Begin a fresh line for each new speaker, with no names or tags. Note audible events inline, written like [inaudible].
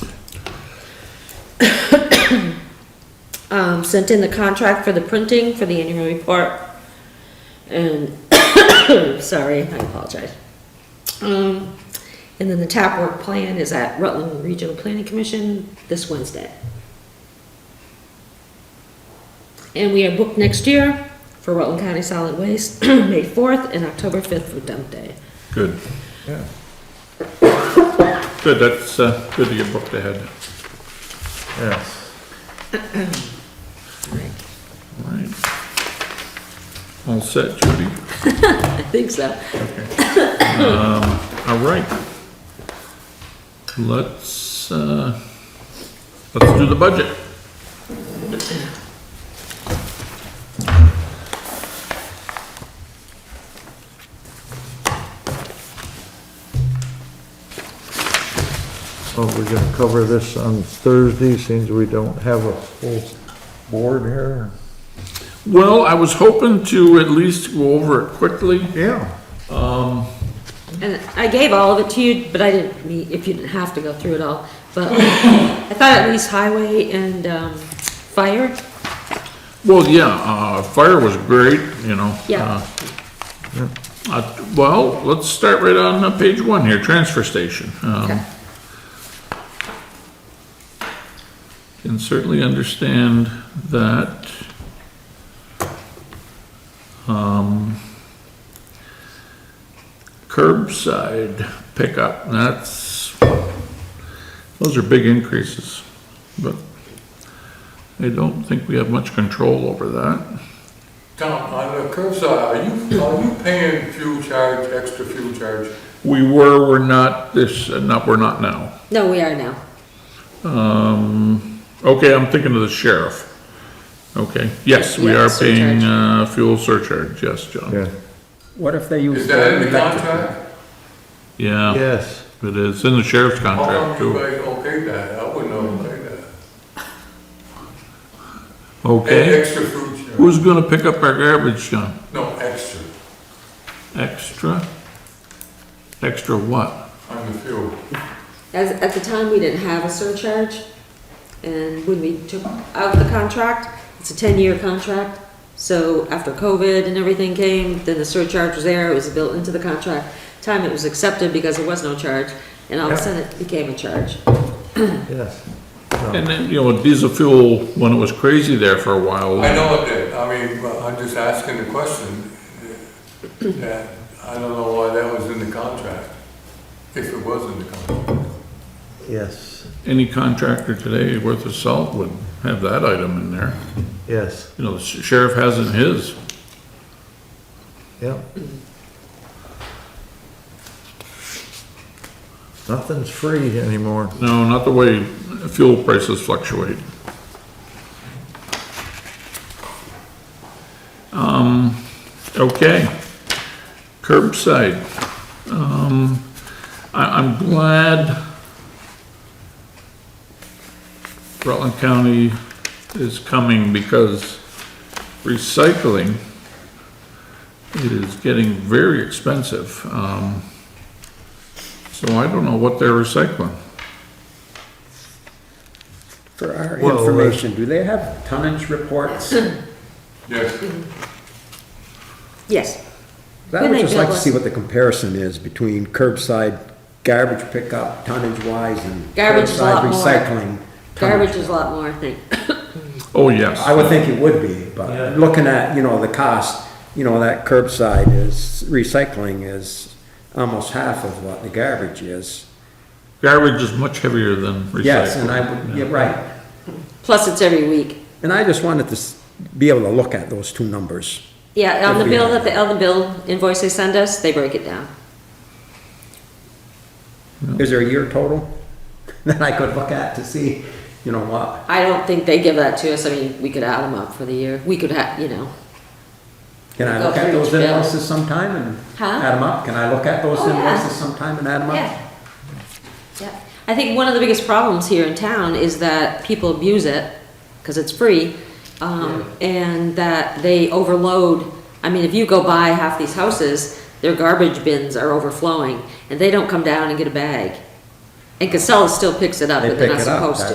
um, sent in the contract for the printing for the annual report. And, [coughs] sorry, I apologize. Um, and then the tap work plan is at Rutland Regional Planning Commission this Wednesday. And we are booked next year for Rutland County Solid Waste, [coughs] May 4th and October 5th for dump day.
Good. Yeah. Good, that's, uh, good to get booked ahead. Yes. All right. All set, Judy?
I think so.
All right. Let's, uh, let's do the budget.
Oh, we're gonna cover this on Thursday, since we don't have a full board here.
Well, I was hoping to at least go over it quickly.
Yeah.
And I gave all of it to you, but I didn't mean, if you didn't have to go through it all. But I thought at least highway and, um, fire,
Well, yeah, uh, fire was great, you know.
Yeah.
uh, uh, Well, let's start right on uh, page one here, transfer station. Um,
Okay.
Can certainly understand that. Um, Curbside pickup, that's, those are big increases, but I don't think we have much control over that.
Tom, on the curbside, are you, are you paying fuel charge, extra fuel charge?
We were, we're not this, uh, not, we're not now.
no, we are now.
Um, okay, I'm thinking of the sheriff. Okay, yes, we
Yeah,
are
surcharge.
paying, uh, fuel surcharge, yes, John.
Yeah,
What if they use?
Is that in the
electric?
contract?
Yeah,
yes.
it is, in the sheriff's
How
contract
come you
too.
guys okay that? I wouldn't okay that. Pay
Okay,
extra fuel charge,
who's gonna pick up our garbage, John?
no, extra
Extra? Extra what?
on the fuel.
As, at the time, we didn't have a surcharge, and when we took out the contract, it's a ten-year contract, so after COVID and everything came, then the surcharge was there, it was built into the contract. Time it was accepted because there was no charge, and all of a
Yeah.
sudden it became a charge.
Yes.
And then, you know, diesel fuel, when it was crazy there for a while.
I know it did, I mean, but I'm just asking the question, that, I don't know why that was in the contract, if it was in the contract.
Yes,
Any contractor today worth of salt would have that item in there.
yes,
You know, the sheriff has in his.
yep. Nothing's free anymore.
No, not the way fuel prices fluctuate. Um, okay, curbside. Um, I, I'm glad Rutland County is coming because recycling is getting very expensive. Um, so I don't know what they're recycling.
For our
Well, uh,
information, do they have tonnage
Hmm.
reports?
Yes,
Yes,
I
When
would
they
just like to
bill us.
see what the comparison is between curbside garbage pickup tonnage-wise and
Garbage is a lot
curbside
more.
recycling.
garbage
tonnage.
is a lot more, I think. [coughs]
Oh, yes.
I would think it would be, but looking at, you know, the cost, you know, that curbside is, recycling is almost half of what the garbage is.
Garbage is much heavier than recycling.
Yes, and I would, yeah, right.
Plus, it's every week.
And I just wanted to s- be able to look at those two numbers.
Yeah, on the
Every
bill that
week.
the, on the bill invoice they send us, they break it down.
Is there a year total [laughs] that I could look at to see, you know, what?
I don't think they give that to us, I mean, we could add them up for the year, we could have, you know.
Can I
Go
look at
through each
those
bill.
invoices sometime and
Huh?
add them up? Can I look at those
Oh, yeah.
invoices sometime and add them up?
Yeah, yeah. I think one of the biggest problems here in town is that people abuse it, because it's free, um, and that they overload. I mean, if you go by half these houses, their garbage bins are overflowing, and they don't come down and get a bag. And Casella still picks it up,
They
but they're
pick
not
it up,
supposed to.
that's